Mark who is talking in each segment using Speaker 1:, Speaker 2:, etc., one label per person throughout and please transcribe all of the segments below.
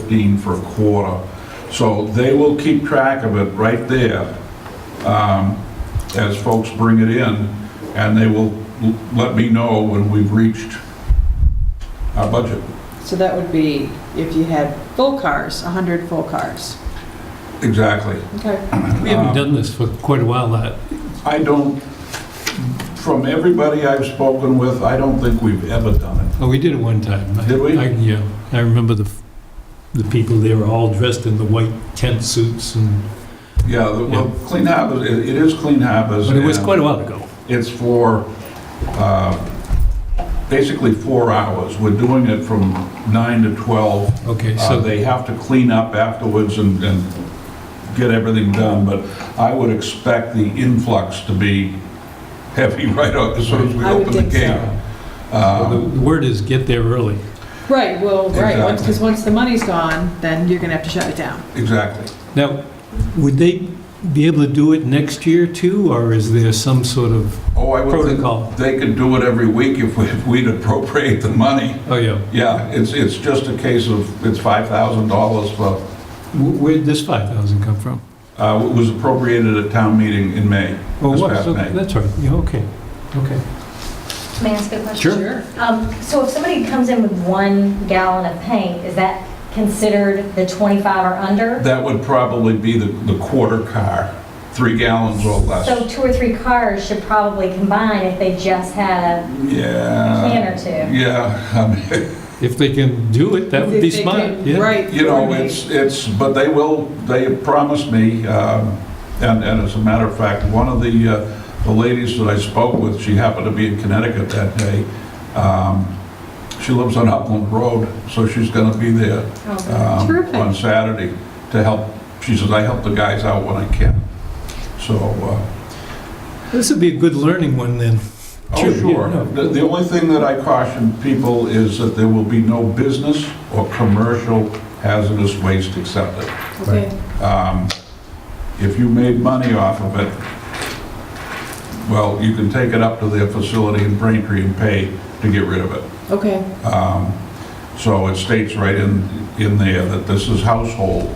Speaker 1: 15 for a quarter. So they will keep track of it right there um, as folks bring it in, and they will l- let me know when we've reached our budget.
Speaker 2: So that would be if you had full cars, 100 full cars.
Speaker 1: Exactly.
Speaker 2: Okay.
Speaker 1: Um,
Speaker 3: We haven't done this for quite a while, uh, that.
Speaker 1: I don't, from everybody I've spoken with, I don't think we've ever done it.
Speaker 3: Oh, we did it one time. I-
Speaker 1: Did we?
Speaker 3: I- Yeah, I remember the, f- the people, they were all dressed in the white tent suits and,
Speaker 1: Yeah, the- well, Clean Harbors, it it is Clean Harbors.
Speaker 3: but it was
Speaker 1: and
Speaker 3: quite a while ago.
Speaker 1: It's for, uh, basically four hours. We're doing it from nine to 12.
Speaker 3: Okay,
Speaker 1: Uh,
Speaker 3: so,
Speaker 1: They have to clean up afterwards and, and get everything done, but I would expect the influx to be heavy right out as soon as we
Speaker 2: I would
Speaker 1: open the
Speaker 2: think so.
Speaker 1: gate.
Speaker 3: the
Speaker 1: Um,
Speaker 3: the word is get there early.
Speaker 2: Right, well, right, because
Speaker 1: Exactly.
Speaker 2: once the money's gone, then you're going to have to shut it down.
Speaker 1: Exactly.
Speaker 3: Now, would they be able to do it next year too, or is there some sort of
Speaker 1: Oh, I would think
Speaker 3: protocol?
Speaker 1: they could do it every week if we- if we'd appropriate the money.
Speaker 3: Oh, yeah.
Speaker 1: Yeah, it's, it's just a case of, it's $5,000 for,
Speaker 3: Wh- Where'd this 5,000 come from?
Speaker 1: uh, it was appropriated at town meeting in May.
Speaker 3: Oh,
Speaker 1: This
Speaker 3: what?
Speaker 1: past
Speaker 3: So
Speaker 1: May.
Speaker 3: That's right, yeah, okay, okay.
Speaker 4: May I ask a question?
Speaker 3: Sure.
Speaker 4: Um, So if somebody comes in with one gallon of paint, is that considered the 25 or under?
Speaker 1: That would probably be the, the quarter car, three gallons or
Speaker 4: So
Speaker 1: less.
Speaker 4: two or three cars should probably combine if they just had a
Speaker 1: Yeah.
Speaker 4: can or two.
Speaker 1: Yeah, I mean,
Speaker 3: If they can do it, that would be
Speaker 2: If they
Speaker 3: smart,
Speaker 2: could-
Speaker 3: yeah.
Speaker 2: Right.
Speaker 1: you know,
Speaker 2: coordinate.
Speaker 1: it's, it's, but they will, they promised me, um, and, and as a matter of fact, one of the, uh, the ladies that I spoke with, she happened to be in Connecticut that day. Um, She lives on Upland Road, so she's gonna be there
Speaker 4: Oh.
Speaker 1: um,
Speaker 2: Terrific.
Speaker 1: on Saturday to help. She says, I help the guys out when I can. So, uh,
Speaker 3: This would be a good learning one then. Sure,
Speaker 1: oh,
Speaker 3: yeah,
Speaker 1: sure.
Speaker 3: no.
Speaker 1: The the only thing that I caution people is that there will be no business or commercial hazardous waste accepted.
Speaker 2: Okay.
Speaker 1: Um, If you made money off of it, well, you can take it up to their facility in Braintree and pay to get rid of it.
Speaker 2: Okay,
Speaker 1: Um, So it states right in, in there that this is household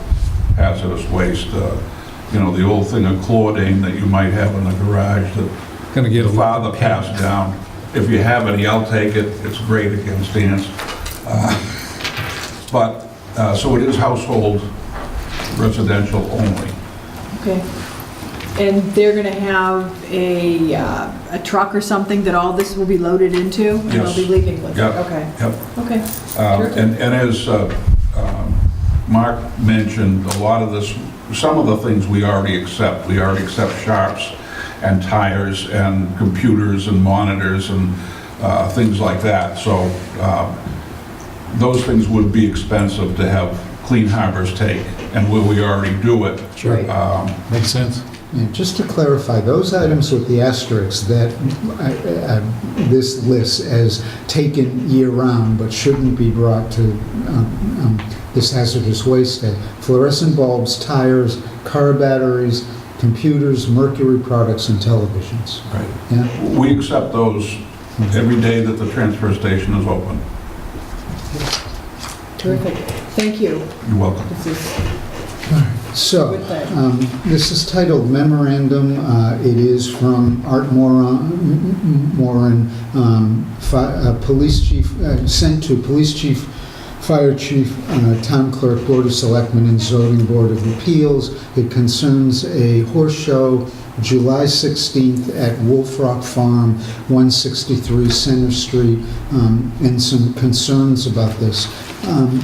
Speaker 1: hazardous waste, uh, you know, the old thing of chlordane that you might have in the garage that
Speaker 3: Gonna get a
Speaker 1: your
Speaker 3: lot of
Speaker 1: father passed down. If you have any, I'll take it, it's great against ants. Uh, But, uh, so it is household residential only.
Speaker 2: okay. And they're going to have a, uh, a truck or something that all this will be loaded into? And they'll
Speaker 1: Yes.
Speaker 2: be leaving with it?
Speaker 1: Yep.
Speaker 2: Okay,
Speaker 1: Yep.
Speaker 2: okay.
Speaker 1: Um,
Speaker 2: Terrific.
Speaker 1: And and as uh, um, Mark mentioned, a lot of this, some of the things we already accept. We already accept sharps and tires and computers and monitors and uh, things like that. So um, those things would be expensive to have Clean Harbors take, and where we already do it.
Speaker 3: Sure.
Speaker 2: Right.
Speaker 1: um,
Speaker 3: Makes sense.
Speaker 5: And just to clarify, those items with the asterisks that uh, uh, this lists as taken year-round but shouldn't be brought to um, um, this hazardous waste day, fluorescent bulbs, tires, car batteries, computers, mercury products, and televisions.
Speaker 1: Right.
Speaker 5: Yeah?
Speaker 1: We accept those every day that the transfer station is open.
Speaker 2: Terrific. Thank you.
Speaker 1: You're welcome.
Speaker 2: This is
Speaker 5: So,
Speaker 2: good thing.
Speaker 5: um, this is titled Memorandum. Uh, It is from Art Moran, Moran, um, fi- uh, Police Chief, uh, sent to Police Chief, Fire Chief, uh, Town Clerk, Board of Selectmen, and Zoning Board of Appeals. It concerns a horse show, July 16th at Wolf Rock Farm, 163 Center Street, um, and some concerns about this. Um,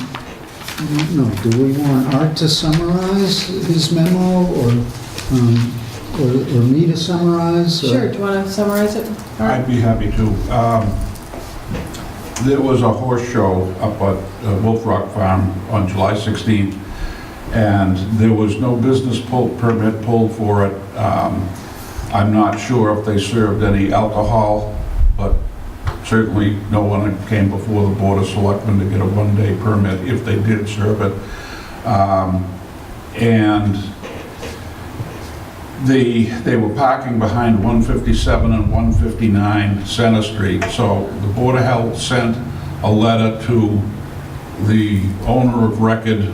Speaker 5: no, do we want Art to summarize his memo, or, um, or or me to summarize? or-
Speaker 2: Sure, do you want to summarize it? All right.
Speaker 1: I'd be happy to. Um, There was a horse show up at uh, Wolf Rock Farm on July 16th, and there was no business pull, permit pulled for it. Um, I'm not sure if they served any alcohol, but certainly no one came before the Board of Selectmen to get a one-day permit if they did serve it. Um, And the, they were parking behind 157 and 159 Center Street, so the Board of Health sent a letter to the owner of record